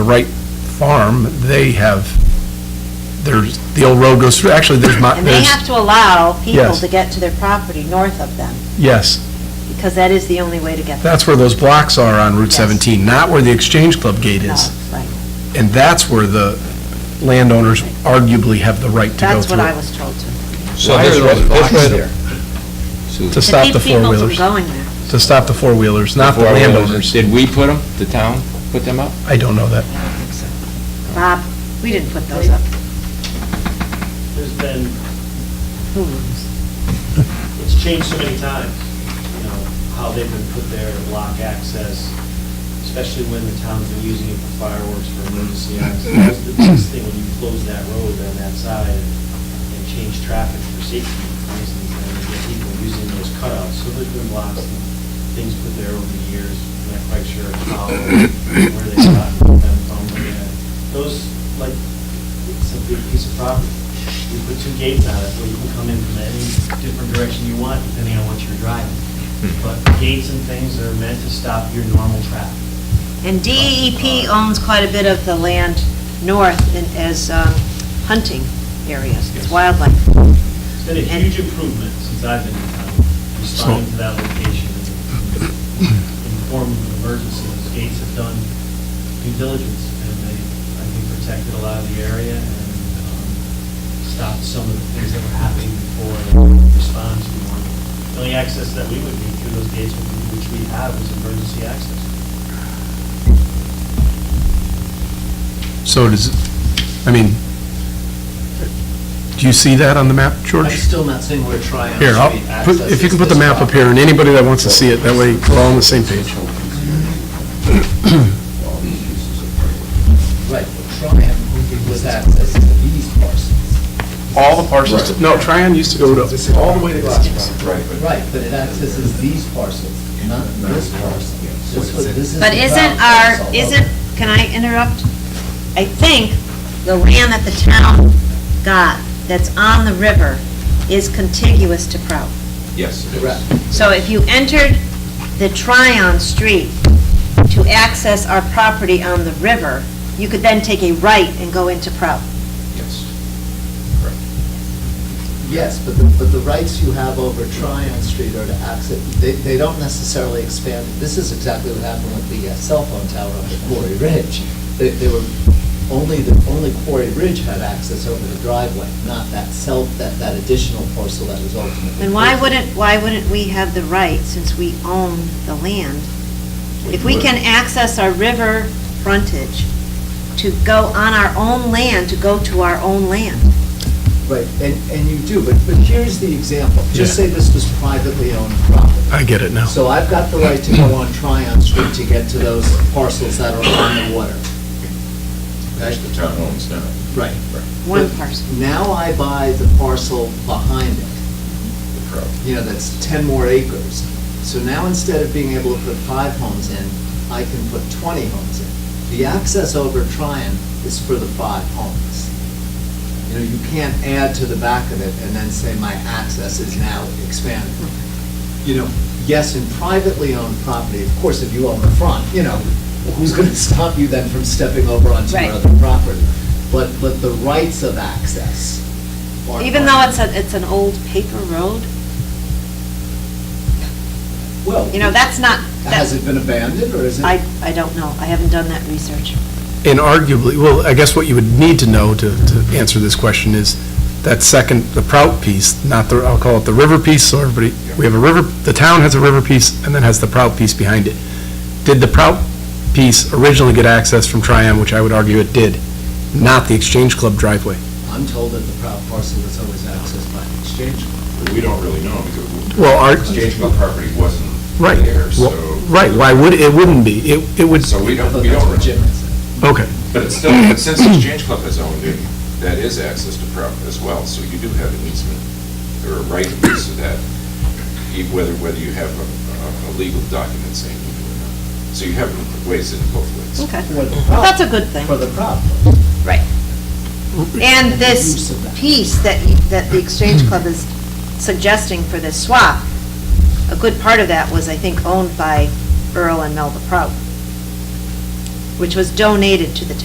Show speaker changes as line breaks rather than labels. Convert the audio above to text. Wright Farm, they have, there's, the old road goes through, actually, there's my,
And they
there's,
have to allow people
Yes.
to get to their property north of them,
yes,
because that is the only way to get there.
that's where those blocks are on Route
Yes.
17, not where the Exchange Club gate
No,
is.
right.
And that's where the landowners arguably have the right to go
That's what I
through,
was told to.
So
Why
this
are
right-
those
this
blocks
right-
there?
So
to stop the
To keep people from
four-wheelers,
going there.
to stop the four-wheelers, not the
four wheelers,
landowners.
Did we put them, the town put them up?
I don't know that.
I don't think so. Bob, we didn't put those up.
there's been,
Who knows?
it's changed so many times, you know, how they've been put there to block access, especially when the town's been using it for fireworks for emergency access. That's the biggest thing, when you close that road on that side and change traffic for safety reasons, and you get people using those cutouts. So there's been blocks and things put there over the years, I'm not quite sure how, where they got them from. and Those, like, it's a big piece of property. We put two gates on it, so you can come in from any different direction you want, depending on what you're driving. But gates and things are meant to stop your normal traffic.
And DEP owns quite a bit of the land north in- as um, hunting areas, it's wildlife.
It's been a huge improvement since I've been in town, responding to that location, and informing of emergency. Those gates have done due diligence, and they, I think, protected a lot of the area and um, stopped some of the things that were happening before and responded to more. The only access that we would need through those gates, which we have, is emergency access.
So does, I mean, do you see that on the map, George?
I'm still not seeing where Tryon
Here, I'll,
Street
put-
accesses.
if you can put the
this
map up here, and anybody that wants to see it, that way we're all on the same page.
property. Right, but Tryon only was access to these parcels.
All the parcels, no, Tryon used to go to, all the way to Glassboro.
Right, but it accesses these parcels, not this parcel. This was- this is
But
the
isn't
Brown
our,
parcel.
isn't, can I interrupt? I think the land that the town got that's on the river is contiguous to Prout.
Yes.
Correct.
So if you entered the Tryon Street to access our property on the river, you could then take a right and go into Prout.
Yes.
Yes, but the, but the rights you have over Tryon Street are to access, they, they don't necessarily expand. This is exactly what happened with the uh, cell phone tower up at Quarry Ridge. They, they were, only, the, only Quarry Ridge had access over the driveway, not that cell, that, that additional parcel that was ultimately.
And why wouldn't, why wouldn't we have the right, since we own the land? If we can access our river frontage to go on our own land, to go to our own land.
Right, and, and you do, but, but here's the example. Just
Yeah.
say this was privately owned property.
I get it now.
So I've got the right to go on Tryon Street to get to those parcels that are on the water.
That's the town owns now.
Right.
One
But
parcel.
Now I buy the parcel behind it, you know, that's 10 more acres. So now instead of being able to put five homes in, I can put 20 homes in. The access over Tryon is for the five homes. You know, you can't add to the back of it and then say my access is now expanded. You know, yes, in privately owned property, of course, if you own the front, you know, who's going to stop you then from stepping over onto
Right.
your other property? But, but the rights of access are.
Even though it's a, it's an old paper road,
Well,
you know, that's not,
Has
that,
it been abandoned, or is it?
I, I don't know. I haven't done that research.
And arguably, well, I guess what you would need to know to, to answer this question is that second, the Prout piece, not the, I'll call it the river piece, so everybody, we have a river, the town has a river piece, and then has the Prout piece behind it. Did the Prout piece originally get access from Tryon, which I would argue it did, not the Exchange Club driveway?
I'm told that the proud parcel was always accessed by the exchange.
But we don't really know because
Well, our,
exchange club property wasn't
Right.
there, so,
right, why would, it wouldn't be, it, it would,
so we
I
don't,
thought
we
that's
don't.
what Jim
really-
had said.
okay,
But it's still, but since the exchange club has owned it, that is access to property as well, so you do have an easement or a right of use of that, e- whether, whether you have a, a- a legal document saying you do or not. So you have ways in both ways.
Okay.
For the
Well,
proud-
that's a good thing.
For the proud.
And
Use
this
of that.
piece that, you- that the Exchange Club is suggesting for this swap, a good part of that was, I think, owned by Earl and Melba Prout, which was donated to the town.